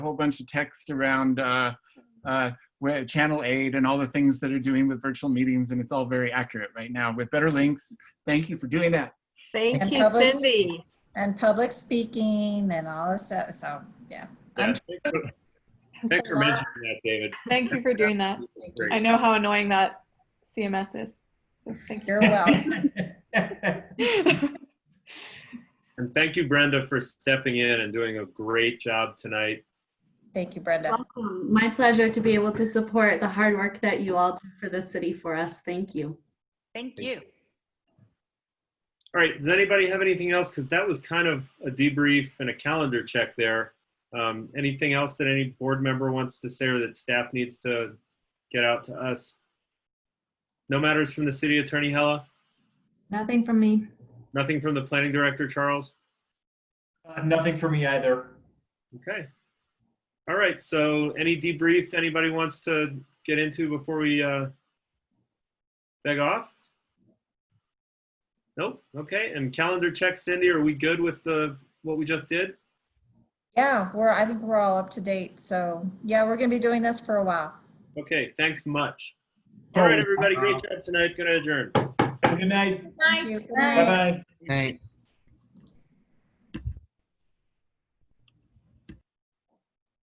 whole bunch of text around uh, uh, where Channel 8 and all the things that are doing with virtual meetings, and it's all very accurate right now with better links. Thank you for doing that. Thank And you, public- Cindy. and public speaking and all this stuff. So, yeah. I'm- Thanks for mentioning that, David. Thank you for doing that. Great. I know how annoying that CMS is. So thank You're welcome. you. And thank you, Brenda, for stepping in and doing a great job tonight. Thank you, Brenda. Welcome. My pleasure to be able to support the hard work that you all do for the city for us. Thank you. Thank you. All right, does anybody have anything else? Because that was kind of a debrief and a calendar check there. Um, anything else that any board member wants to say or that staff needs to get out to us? No matters from the city attorney, Hella? Nothing from me. Nothing from the planning director, Charles? Uh, Nothing for me either. Okay. All right, so any debrief anybody wants to get into before we uh beg off? Nope, okay, and calendar check, Cindy, are we good with the, what we just did? Yeah, we're, I think we're all up to date. So, yeah, we're going to be doing this for a while. Okay, thanks much. All right, everybody, great job tonight, gonna adjourn. Have a Good night. Nice. Thank you. Good night. Bye-bye. Right.